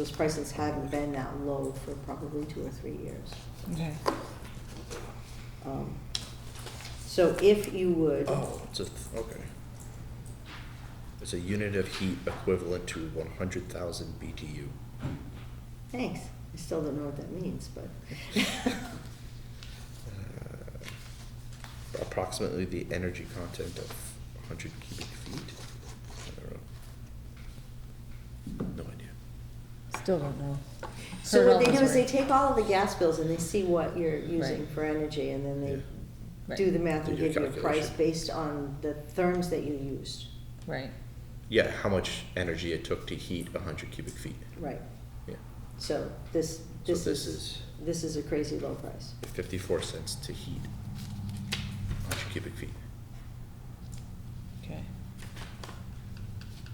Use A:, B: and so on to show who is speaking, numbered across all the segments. A: Those prices haven't been that low for probably two or three years.
B: Okay.
A: Um, So if you would,
C: Oh, it's a, th- okay. It's a unit of heat equivalent to one hundred thousand BTU.
A: thanks, I still don't know what that means, but.
C: Uh, Approximately the energy content of hundred cubic feet. I don't know. No idea.
B: Still don't know.
A: So
B: Heard all
A: what they
B: those
A: do is they
B: words.
A: take all of the gas bills and they see what you're using
B: Right.
A: for energy and then they
C: Yeah.
B: Right,
A: do the math
C: They
A: and
C: do a
A: give you a price
C: calculation.
A: based on the therms that you used.
B: Right.
C: Yeah, how much energy it took to heat hundred cubic feet.
A: Right,
C: Yeah,
A: so this,
C: so
A: this
C: this
A: is,
C: is
A: this is a crazy low price.
C: fifty-four cents to heat hundred cubic feet,
B: Okay.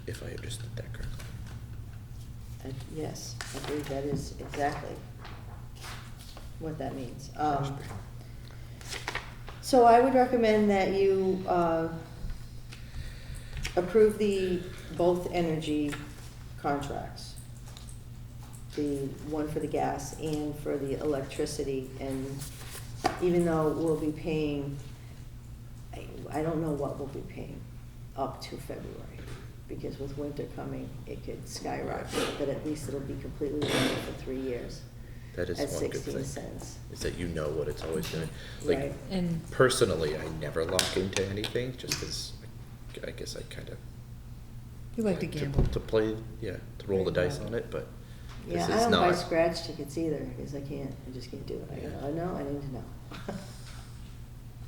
C: if I understood that correctly.
A: I- Yes, I believe that is exactly what that means. Um, So I would recommend that you uh, approve the both energy contracts. The one for the gas and for the electricity, and even though we'll be paying, I I don't know what we'll be paying up to February, because with winter coming, it could skyrocket, but at least it'll be completely level for three years.
C: That is
A: At
C: one good
A: sixteen
C: thing.
A: cents.
C: Is that you know what it's always gonna, like,
A: Right.
B: And
C: personally, I never lock into anything, just as, I guess I kinda.
B: you like to gamble.
C: To play, yeah, to roll the dice on it, but
A: Yeah,
C: this
A: I
C: is
A: don't buy
C: not.
A: scratch tickets either, because I can't, I just can't do it. I
C: Yeah.
A: go, oh, no, I need to know.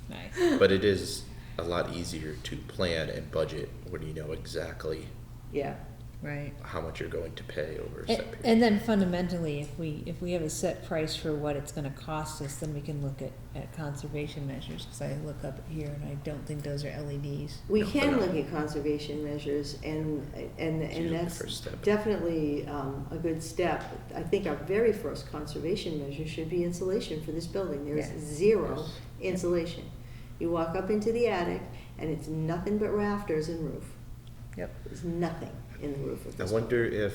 B: Nice.
C: But it is a lot easier to plan and budget when you know exactly
A: Yeah,
B: Right.
C: how much you're going to pay over a
B: And,
C: set period.
B: and then fundamentally, if we, if we have a set price for what it's gonna cost us, then we can look at, at conservation measures, cause I look up here and I don't think those are E LEDs.
A: we
C: No,
A: can
C: no.
A: look at conservation measures and, and,
C: It's usually
A: and
C: the
A: that's
C: first step.
A: definitely um, a good step. I think our very first conservation measure should be insulation for this building. There's
B: Yes.
A: zero
C: Yes.
A: insulation. You walk up into the attic and it's nothing but rafters and roof.
B: Yep.
A: There's nothing in the roof of
C: I
A: this.
C: wonder if,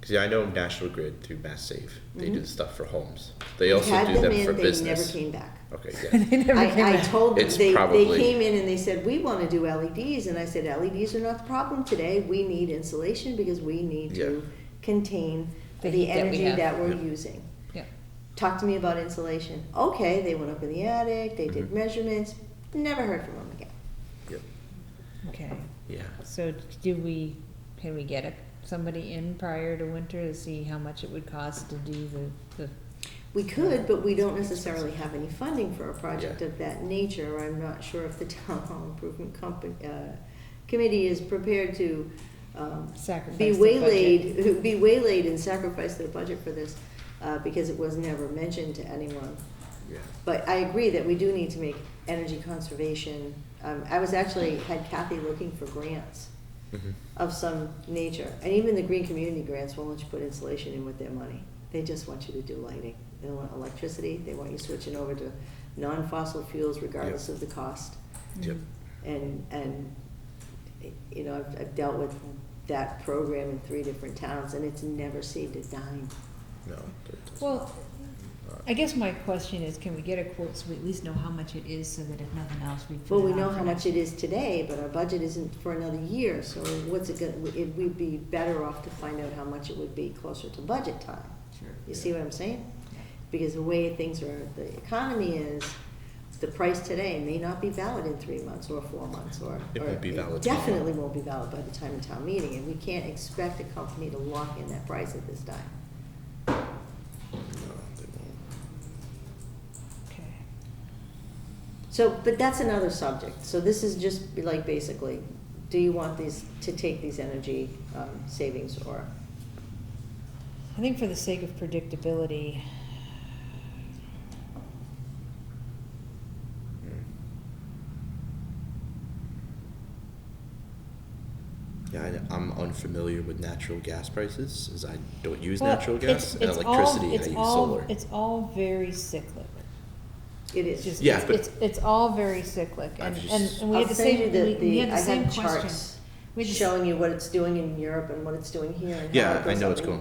C: cause yeah, I know National Grid through Mass Save, they do
A: Mhm.
C: the stuff for homes. They
A: We
C: also
A: had
C: do
A: them
C: them
A: in,
C: for
A: They
C: business.
A: never came back.
C: Okay, yeah.
B: They never came
A: I, I
B: back.
A: told them,
C: It's
A: they, they
C: probably-
A: came in and they said, we wanna do LEDs, and I said, LEDs are not the problem today, we need insulation because we need to
C: Yeah.
A: contain
B: The
A: the
B: heat that we
A: energy
B: have.
A: that we're
C: Yeah.
A: using.
B: Yeah.
A: Talk to me about insulation. Okay, they went up in the attic, they did
C: Mhm.
A: measurements, never heard from them again.
C: Yep,
B: Okay,
C: yeah.
B: so do we, can we get a- somebody in prior to winter to see how much it would cost to do the, the
A: We could, but we don't necessarily have any funding for a project
C: Yeah.
A: of that nature. I'm not sure if the town hall improvement company, uh, committee is prepared to, um,
B: Sacrifice
A: be
B: the
A: waylaid, be waylaid and sacrifice their budget for this, uh, because it was never mentioned to anyone.
C: Yeah.
A: But I agree that we do need to make energy conservation, um, I was actually, had Kathy looking for grants
C: Mhm.
A: of some nature. And even the green community grants won't let you put insulation in with their money. They just want you to do lighting. They don't want electricity, they want you switching over to non-fossil fuels regardless
C: Yep.
A: of the cost.
C: Yep.
A: And, and, you know, I've, I've dealt with that program in three different towns and it's never saved a dime.
C: No. that doesn't-
B: Well,
C: not-
B: I guess my question is, can we get a quote so we at least know how much it is so that if nothing else, we put
A: Well,
B: it
A: we
B: on
A: know
B: for
A: how
B: next-
A: much it is today, but our budget isn't for another year, so what's it gonna, it, we'd be better off to find out how much it would be closer to budget time.
B: Sure.
A: You see what I'm saying? Because the way things are, the economy is, the price today may not be valid in three months or four months or.
C: It
A: or
C: won't be valid tomorrow.
A: Definitely won't be valid by the time of town meeting, and we can't expect a company to lock in that price at this time.
C: No, they won't.
B: Okay.
A: So, but that's another subject, so this is just be like basically, do you want these, to take these energy, um, savings or?
B: I think for the sake of predictability,
C: Yeah, I, I'm unfamiliar with natural gas prices, as I don't use
B: Well,
C: natural
B: it's-
C: gas and
B: it's all-
C: electricity.
B: it's
C: I use
B: all-
C: solar.
B: It's all very cyclic.
A: It
B: It's just,
A: is.
C: Yeah,
B: it's,
C: but-
B: it's, it's all very cyclic,
C: I've
B: and,
C: just-
B: and and we
A: I'll
B: had the
A: send
B: same,
A: you the-
B: we- we
A: the-
B: had
A: I
B: the same
A: have
B: question.
A: charts.
B: We We just-
A: showing you what it's doing in Europe and what it's doing here and how
C: Yeah,
A: it
C: I
A: goes
C: know
A: up
C: it's
A: in-
C: going